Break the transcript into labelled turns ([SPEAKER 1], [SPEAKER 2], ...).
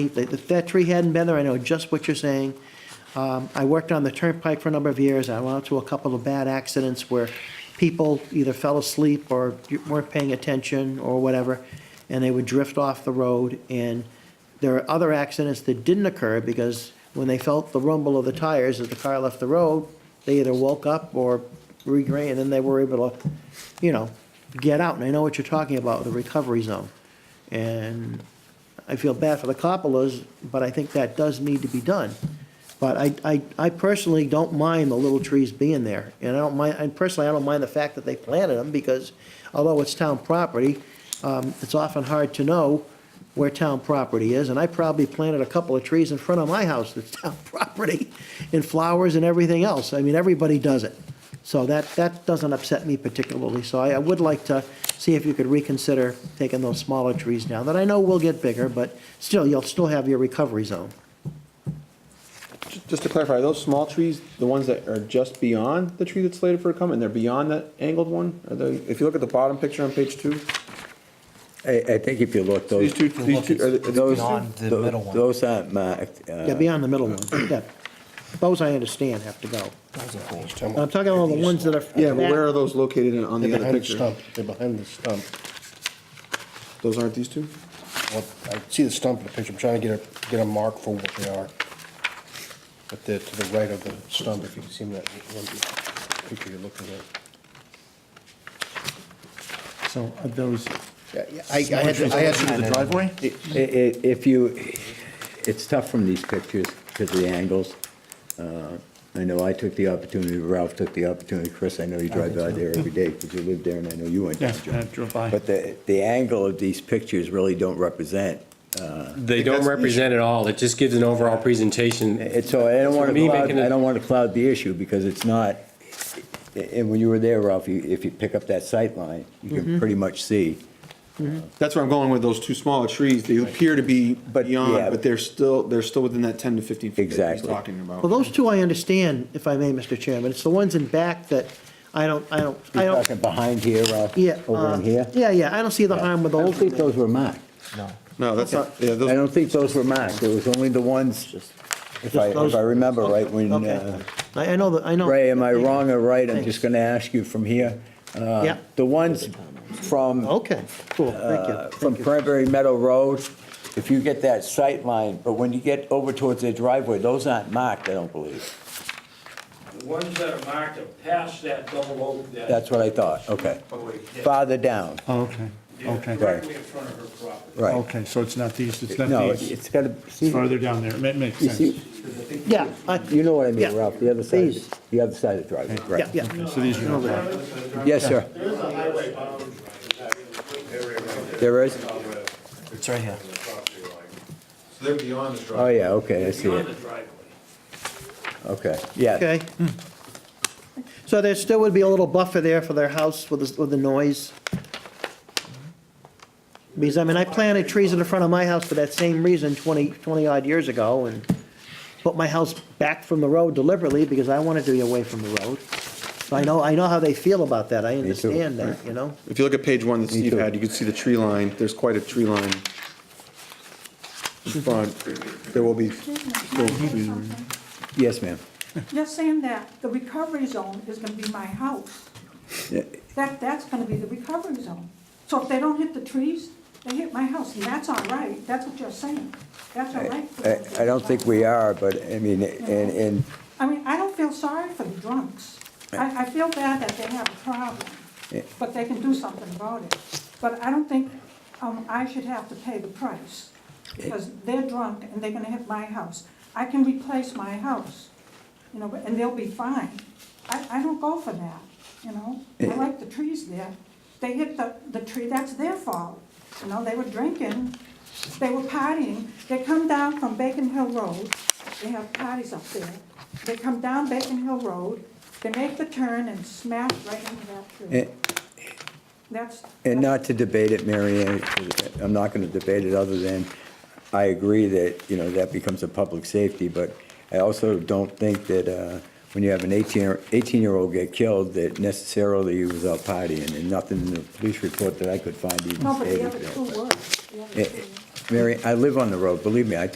[SPEAKER 1] If if that tree hadn't been there, I know just what you're saying. Um, I worked on the turnpike for a number of years. I went out to a couple of bad accidents where people either fell asleep or weren't paying attention or whatever, and they would drift off the road. And there are other accidents that didn't occur because when they felt the rumble of the tires as the car left the road, they either woke up or regra and then they were able to, you know, get out. And I know what you're talking about, the recovery zone. And I feel bad for the Coppolas, but I think that does need to be done. But I, I, I personally don't mind the little trees being there, and I don't mind, and personally, I don't mind the fact that they planted them, because although it's town property, um, it's often hard to know where town property is, and I probably planted a couple of trees in front of my house that's town property, and flowers and everything else, I mean, everybody does it. So that, that doesn't upset me particularly, so I, I would like to see if you could reconsider taking those smaller trees down, that I know will get bigger, but still, you'll still have your recovery zone.
[SPEAKER 2] Just to clarify, are those small trees, the ones that are just beyond the tree that's slated for a come, and they're beyond that angled one? Are they, if you look at the bottom picture on page two,
[SPEAKER 3] I, I think if you look, those.
[SPEAKER 2] these two, these two, are they- are these two?
[SPEAKER 3] those-
[SPEAKER 4] Beyond the
[SPEAKER 3] tho-
[SPEAKER 4] middle one.
[SPEAKER 3] Those aren't marked. uh,
[SPEAKER 1] Yeah, beyond the middle one, yeah. Those I understand have to go.
[SPEAKER 5] I'm
[SPEAKER 1] I'm talking about the ones that are.
[SPEAKER 2] Yeah, but where are those located in- on the
[SPEAKER 5] They're
[SPEAKER 2] other
[SPEAKER 5] behind the
[SPEAKER 2] picture?
[SPEAKER 5] stump, they're behind the stump.
[SPEAKER 2] Those aren't these two?
[SPEAKER 5] Well, I see the stump in the picture, I'm trying to get a, get a mark for what they are. But they're to the right of the stump, if you can see in that one picture you're looking at.
[SPEAKER 4] So are those,
[SPEAKER 5] I had, I
[SPEAKER 4] to the driveway?
[SPEAKER 3] i- i- If you, it's tough from these pictures because of the angles. Uh, I know I took the opportunity, Ralph took the opportunity, Chris, I know
[SPEAKER 4] Oh,
[SPEAKER 3] you drive by there every day because you live there and I know you went down.
[SPEAKER 4] Yes,
[SPEAKER 3] John.
[SPEAKER 4] I drove by.
[SPEAKER 3] But the, the angle of these pictures really don't represent.
[SPEAKER 6] They don't represent it all, it just gives an overall presentation.
[SPEAKER 3] And so I don't
[SPEAKER 6] For
[SPEAKER 3] want to
[SPEAKER 6] me,
[SPEAKER 3] cloud,
[SPEAKER 6] making it-
[SPEAKER 3] I don't want to cloud the issue because it's not, and when you were there, Ralph, you- if you pick up that sight line, you can pretty much see.
[SPEAKER 2] That's where I'm going with those two smaller trees. They appear to be
[SPEAKER 3] But,
[SPEAKER 2] beyond,
[SPEAKER 3] yeah.
[SPEAKER 2] but they're still, they're still within that ten to fifteen feet that he's
[SPEAKER 3] Exactly.
[SPEAKER 2] talking about.
[SPEAKER 1] Well, those two I understand, if I may, Mr. Chairman. It's the ones in back that I don't, I don't, I
[SPEAKER 3] You're
[SPEAKER 1] don't,
[SPEAKER 3] talking behind here, Ralph?
[SPEAKER 1] yeah.
[SPEAKER 3] Over
[SPEAKER 1] uh,
[SPEAKER 3] in here?
[SPEAKER 1] Yeah, yeah, I don't see the harm with
[SPEAKER 3] I don't
[SPEAKER 1] those.
[SPEAKER 3] think those were marked.
[SPEAKER 2] No, that's not, yeah,
[SPEAKER 3] I
[SPEAKER 2] those,
[SPEAKER 3] don't think those were marked. It was only the ones, if I,
[SPEAKER 1] those-
[SPEAKER 3] if I remember right, when,
[SPEAKER 1] Okay.
[SPEAKER 3] uh,
[SPEAKER 1] I, I know, that. I know.
[SPEAKER 3] Ray, am I wrong or right? I'm
[SPEAKER 1] Thanks.
[SPEAKER 3] just going to ask you from here. Uh,
[SPEAKER 1] Yeah.
[SPEAKER 3] The ones from.
[SPEAKER 1] Okay, cool, thank you.
[SPEAKER 3] uh, From
[SPEAKER 1] Thank you.
[SPEAKER 3] Cranberry Meadow Road, if you get that sight line, but when you get over towards their driveway, those aren't marked, I don't believe.
[SPEAKER 7] The ones that are marked are past that double oak that.
[SPEAKER 3] That's what I thought, okay.
[SPEAKER 7] Oh, yeah.
[SPEAKER 3] Farther down,
[SPEAKER 4] Oh, okay,
[SPEAKER 7] They're
[SPEAKER 4] okay,
[SPEAKER 7] Directly in front of her property.
[SPEAKER 3] right.
[SPEAKER 4] okay, so it's not these, it's
[SPEAKER 3] No,
[SPEAKER 4] not
[SPEAKER 3] it's
[SPEAKER 4] these,
[SPEAKER 3] it's gotta,
[SPEAKER 4] it's
[SPEAKER 3] see,
[SPEAKER 4] farther down there, it makes
[SPEAKER 3] you
[SPEAKER 4] sense.
[SPEAKER 3] see,
[SPEAKER 1] Yeah, I,
[SPEAKER 3] you know what I mean,
[SPEAKER 1] Yeah.
[SPEAKER 3] Ralph, the other side,
[SPEAKER 1] These.
[SPEAKER 3] the other side of the driveway,
[SPEAKER 1] yeah,
[SPEAKER 3] right.
[SPEAKER 1] yeah.
[SPEAKER 4] So these are, okay,
[SPEAKER 3] Yes, sir. There is?
[SPEAKER 4] it's right here.
[SPEAKER 2] so they're beyond the
[SPEAKER 3] Oh, yeah, okay, I see
[SPEAKER 7] Beyond
[SPEAKER 3] it,
[SPEAKER 7] the driveway.
[SPEAKER 3] okay, yeah.
[SPEAKER 1] Okay. So there still would be a little buffer there for their house with the, with the noise? Because, I mean, I planted trees in the front of my house for that same reason 20, 20 odd years ago and put my house back from the road deliberately because I wanted to be away from the road. So I know, I know how they feel about that. I
[SPEAKER 3] too.
[SPEAKER 1] understand that, you know?
[SPEAKER 2] If you look at page one that Steve
[SPEAKER 3] too.
[SPEAKER 2] had, you can see the tree line, there's quite a tree line in front. There will be,
[SPEAKER 3] Yes, ma'am.
[SPEAKER 8] You're saying that the recovery zone is gonna be my house.
[SPEAKER 3] Yeah.
[SPEAKER 8] That, that's gonna be the recovery zone. So if they don't hit the trees, they hit my house, and that's all right, that's what you're saying. That's all right. for
[SPEAKER 3] I,
[SPEAKER 8] them.
[SPEAKER 3] I don't think we are, but, I mean, and, and
[SPEAKER 8] I mean, I don't feel sorry for the drunks. I, I feel bad that they have a problem, but they can do something about it. But I don't think, um, I should have to pay the price, because they're drunk and they're gonna hit my house. I can replace my house, you know, and they'll be fine. I, I don't go for that, you know? I like the trees there. They hit the, the tree, that's their fault. You know, they were drinking, they were partying. They come down from Bacon Hill Road, they have parties up there. They come down Bacon Hill Road, they make the turn and smash right into that tree.
[SPEAKER 3] And-
[SPEAKER 8] That's.
[SPEAKER 3] And
[SPEAKER 8] that's-
[SPEAKER 3] not to debate it, Mary Ann, I'm not going to debate it, other than I agree that, you know, that becomes a public safety, but I also don't think that uh, when you have an 18 year- 18-year-old get killed, that necessarily he was out partying, and nothing in the police report that I could find even
[SPEAKER 8] No, but the
[SPEAKER 3] stated
[SPEAKER 8] other two
[SPEAKER 3] that.
[SPEAKER 8] were. The other
[SPEAKER 3] Eh,
[SPEAKER 8] two were.
[SPEAKER 3] Mary, I live on the road, believe me, I